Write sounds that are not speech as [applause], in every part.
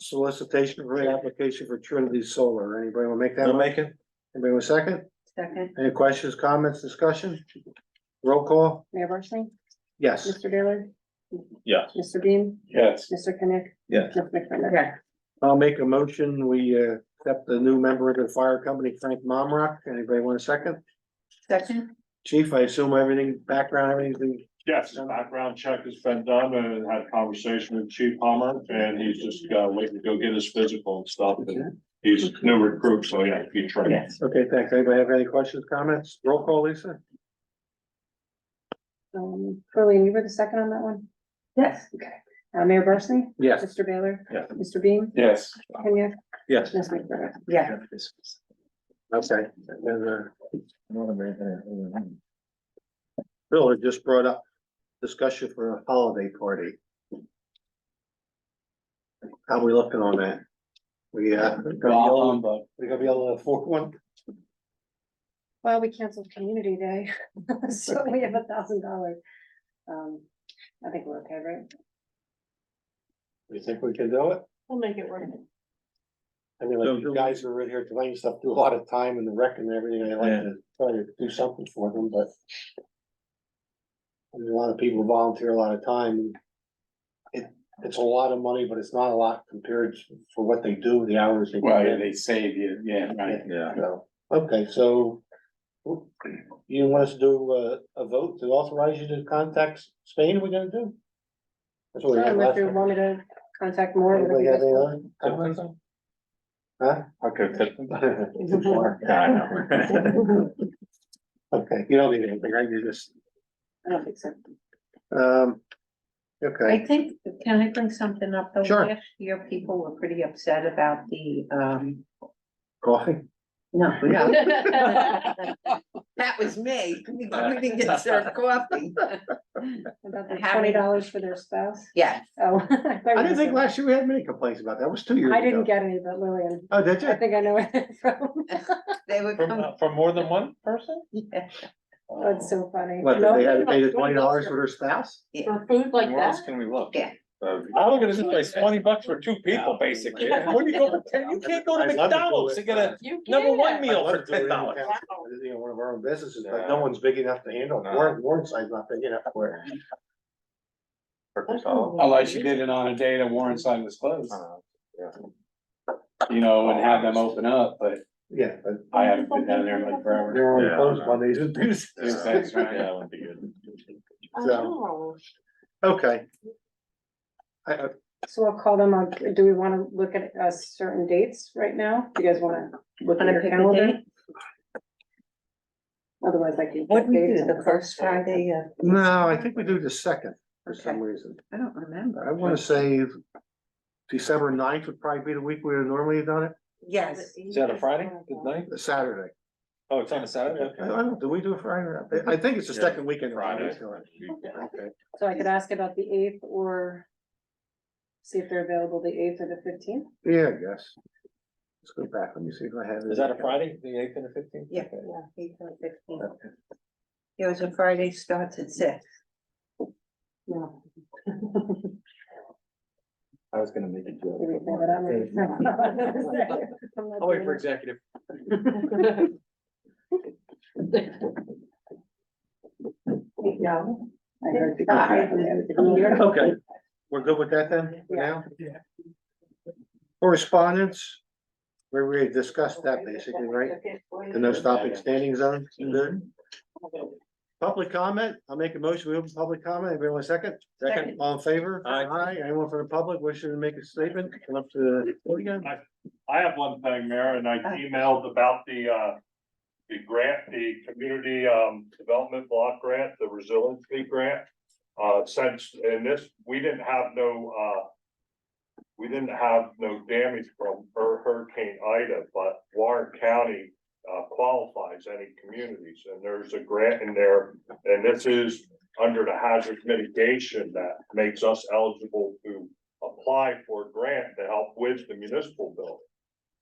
solicitation for an application for Trinity Solar. Anybody want to make that? I'll motion? make it. Anybody want a second? Second, Any questions, comments, discussion? Roll call? Mayor Barsney? Yes. Mr. Baylor? Yes. Mr. Bean? Yes. Mr. Kenick? Yes. Ms. McDermott? Yeah. I'll make a motion. We uh, accept the new member of the fire company, Frank Momrock. Anybody want a second? Second. Chief, I assume everything, background, everything. Yes, the background check has been done and had a conversation with Chief Palmer and he's just uh waiting to go get his physical and stuff. And He's a new recruit, so yeah, he trained. Okay, thanks. Anybody have any questions, comments? Roll call, Lisa? Um, Colleen, you were the second on that one? Yes. Okay. Uh, Mayor Barsney? Yes. Mr. Baylor? Yeah. Mr. Bean? Yes. Kenick? Yes. Ms. McDermott? Yeah. Okay. And then, uh, Bill had just brought up discussion for a holiday party. How we looking on that? We, uh, we gonna Um, um, be able to afford one? Well, we canceled community day, [laughs] so we have a thousand dollars. Um, I think we're okay, right? You think we can do it? We'll make it work. I mean, So like, do you we- guys who are in here tonight and stuff, do a lot of time in the wreck and everything, I like Yeah. to try to do something for them, but. I mean, A lot of people volunteer a lot of time. It, it's a lot of money, but it's not a lot compared to- for what they do, the hours they. put in. they save you, yeah, Yeah. So, okay, so. You want us to do uh, a, a vote to authorize you to contact Spain, we're gonna do? That's what we had Unless last you time. wanted to contact more. whatever Anybody you got guys any want. other comments on? [laughs] Huh? Okay. Too far. [laughs] Okay, you don't need anything, I do this. I don't think so. Um, I okay, think, can I bring something up? though? Sure. Last year, people were pretty upset about the, um, coffee. [laughs] no, no. That was me, we didn't get served coffee. [laughs] About the How many- twenty dollars for their spouse. Yeah, Oh. [laughs] I thought I you didn't think said- last year we had many complaints about that, it was two years ago. I didn't get any, but Lillian, Oh, did I you? think I know where it's [laughs] from. they were coming, From, from more than one person? yeah, That's so funny. What, that they had to pay the No. twenty dollars for their spouse? yeah. Like Uh, Where else can we look? Yeah. I look at this place, twenty bucks for two people, basically. Where do you go, for- [laughs] you can't go to I'd love do McDonald's to it. get a number one meal for ten dollars. You know, one of our own businesses, but no one's big enough to handle, it. Warren, Warren's size not big enough for it. [laughs] Unless she did it on a day that Warren sign was closed, you know, and have them open up, but Yeah, but I haven't been down there in like they forever. were only Yeah. closed Mondays and Tuesdays. That's right. that would be good. Oh. So, Okay. I, uh, I, So I'll call them, on do we wanna look at uh certain dates right now? Do you guys wanna look at Wanna your pick a calendar? date? Otherwise I can. What pick do we dates do, and- the first Friday of? no, I think we do the second for some Okay. reason. I don't remember. I wanna say December 9th would probably be the week we would normally have done it, Yes, Is that a Friday, good night? the Saturday. Oh, it's on a Saturday, I okay. don't, do we do a Friday? I I think it's the Yeah. second weekend. of August, Friday. alright. Okay. So I could ask about the eighth or see if they're available the eighth or the fifteenth. Yeah, I guess. Let's go back, let me see if I have. it. Is that a Friday, the eighth and the fifteenth? yeah, yeah, eight or fifteen. It was a Friday, starts at six. No. [laughs] I was gonna make it. Did we say that [laughs] already? I'm not I'll wait doing it. for [laughs] executive. No. I heard you. Ah. Okay, we're good with that then, for now? Yeah. Correspondence, where we discussed that basically, right? The no stopping standing zone, good. Public comment, I'll make a motion, we open public comment, everyone a second? Second. All in favor? Aye. anyone from the public wishing to make a statement, come up to the podium? I have one thing, Mayor, and I emailed about the uh. The grant, the community um development block grant, the resiliency grant. Uh, since in this, we didn't have no uh. We didn't have no damage from Hur- Hurricane Ida, but Warren County uh qualifies any communities. And there's a grant in there, and this is under the hazard mitigation that makes us eligible to apply for a grant to help with the municipal building.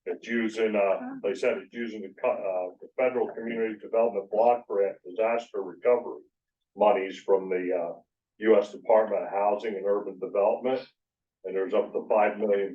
It's using, uh, they said it's using the, co- uh, the federal community development block grant disaster recovery monies from the, uh, U S Department of Housing and Urban Development. And there's up to five million